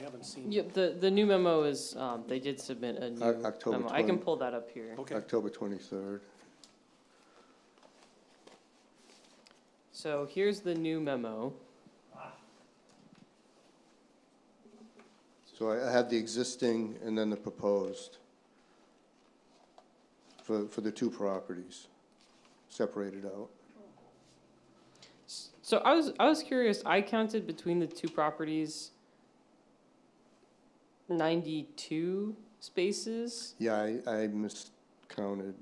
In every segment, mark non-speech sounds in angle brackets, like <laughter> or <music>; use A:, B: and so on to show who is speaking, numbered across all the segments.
A: haven't seen.
B: Yep, the, the new memo is, um, they did submit a
C: O-
B: new
C: October
B: memo. I can
C: 20.
B: pull that up here.
A: Okay,
C: October 23rd.
B: So here's the new memo.
C: So I I have the existing and then the proposed for, for the two properties separated out.
B: S- So I was, I was curious, I counted between the two properties ninety-two spaces?
C: Yeah, I, I miscounted.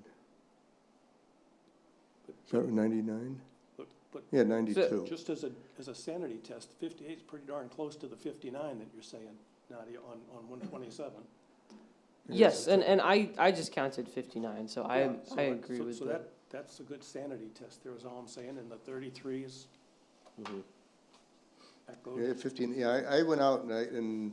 C: Is that 99?
A: but, but
C: Yeah, 92.
A: just as a, as a sanity test, fifty-eight is pretty darn close to the fifty-nine that you're saying, Nadia, on, on one twenty-seven.
B: Yes, and, and I, I just counted fifty-nine, so I, I agree with
A: So
B: that.
A: that, that's a good sanity test, there is all I'm saying, and the thirty-three is, that goes.
C: Mm-hmm. Yeah, 15, yeah, I, I went out and I, and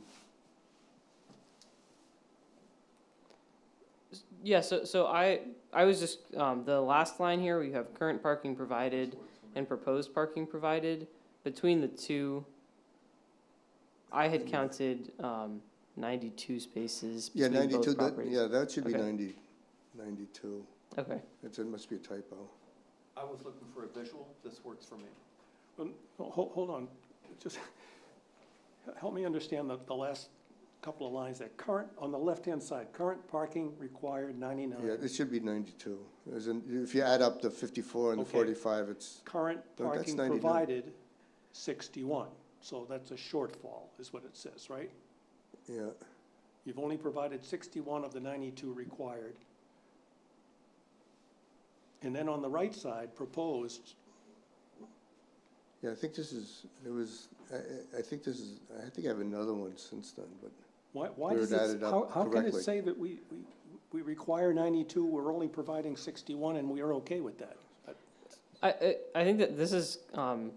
B: Yeah, so, so I, I was just, um, the last line here, we have current parking provided and proposed parking provided. Between the two, I had counted, um, ninety-two spaces
C: Yeah,
B: between
C: ninety-two,
B: both
C: that,
B: properties.
C: yeah, that should be
B: Okay.
C: 90 92.
B: Okay,
C: It's, it must be a typo.
D: I was looking for a visual, this works for me.
A: Um, ho- ho- Hold on, just, help me understand the, the last couple of lines there. Current, on the left-hand side, current parking required
C: Yeah,
A: ninety-nine.
C: it should be ninety-two. As in, if you add up the fifty-four and the
A: Okay.
C: forty-five, it's,
A: Current
C: No, that's
A: parking
C: 99.
A: provided, sixty-one. So that's a shortfall, is what it says, right?
C: yeah,
A: You've only provided sixty-one of the ninety-two required. And then on the right side, proposed,
C: yeah, I think this is, it was, I- I, I think this is, I think I have another one since then, but
A: why, why
C: Where
A: does
C: it
A: it,
C: added up
A: how, how can it
C: correctly.
A: say that we, we, we require ninety-two, we're only providing sixty-one, and we are okay with that?
B: I, I, I think that this is, um,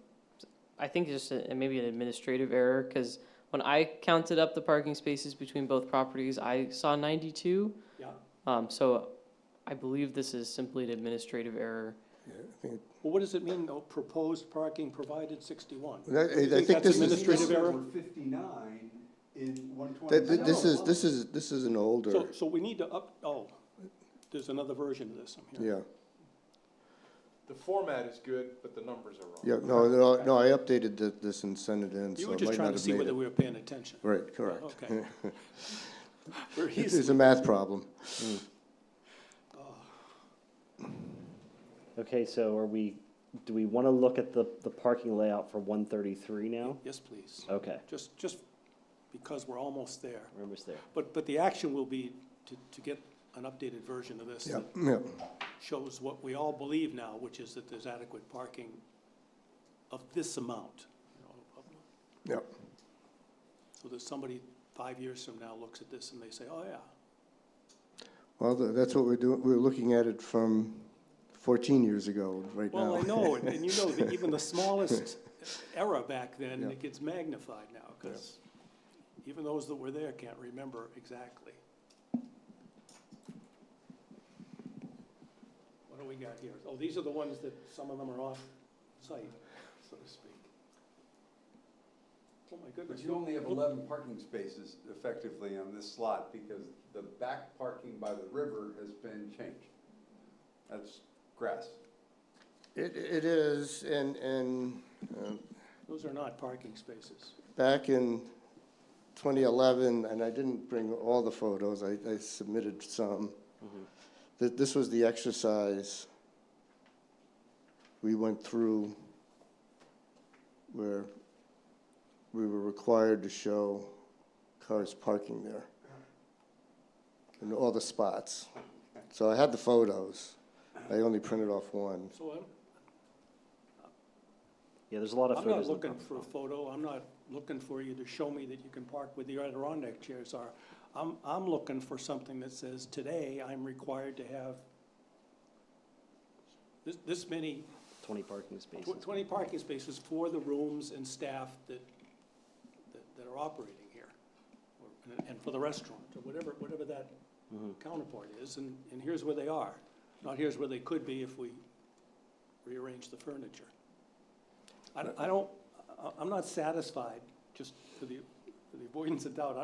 B: I think just a, maybe an administrative error, cause when I counted up the parking spaces between both properties, I saw ninety-two.
A: Yeah.
B: Um, so I believe this is simply an administrative error.
C: yeah, I think,
A: Well, what does it mean, though, proposed parking provided sixty-one?
C: well, I, I
A: think
C: think
A: that's
C: this is,
A: administrative
C: this,
A: error?
D: Fifty-nine in one
C: that- that- this is, this is, this is an older,
A: So, so we need to up, oh, there's another version of this, I'm hearing.
C: yeah,
E: The format is good, but the numbers are wrong.
C: yeah, no, no, no, I updated th- this and sent it in,
A: You
C: so
A: were
C: I
A: just
C: might not
A: trying to
C: have
A: see
C: made
A: whether
C: it.
A: we were paying attention. Oh,
C: Right, correct.
A: Okay. We're
C: <laughs> It-
A: easy.
C: It's a math problem.
F: Okay, so are we, do we want to look at the, the parking layout for one thirty-three now?
A: Yes, please.
C: Uh,
F: Okay,
A: Just, just because we're almost there.
F: we're almost there.
A: But, but the action will be to, to get an updated version of this
C: Yeah,
A: that
C: yeah,
A: shows what we all believe now, which is that there's adequate parking of this amount. you know, of-
C: yeah,
A: So that somebody five years from now looks at this and they say, oh, yeah,
C: well, th- that's what we're doing, we're looking at it from fourteen years ago, right now.
A: Well, I know, and, and you know that even the smallest error back then,
C: Yeah.
A: it gets magnified now, because even those that were there can't remember exactly. What do we got here? Oh, these are the ones that, some of them are off-site, so to speak. Oh, my
D: But
A: goodness.
D: you only have
A: Look-
D: eleven parking spaces effectively on this slot because the back parking by the river has been changed. That's grass.
C: <laughs> It, it is, and, and um,
A: Those are not parking spaces.
C: back in 2011, and I didn't bring all the photos, I, I submitted some. That this was the exercise we went through where we were required to show cars parking there in all the spots. So I had the photos. I only printed off one.
A: So um, I'm,
F: Yeah, there's a lot of
A: I'm not
F: photos. in the
A: looking
F: park.
A: for a photo, I'm not looking for you to show me that you can park where the Adirondack chairs are. I'm, I'm looking for something that says, today, I'm required to have this, this many,
F: Twenty parking
A: tw-
F: spaces.
A: twenty parking spaces for the rooms and staff that, that- that are operating here, or- and- and for the restaurant, or whatever, whatever that counterpart is, and, and here's where they are, not here's where they could be if we rearrange the furniture. I, don't- I don't, I, I'm not satisfied, just for the for the avoidance of doubt,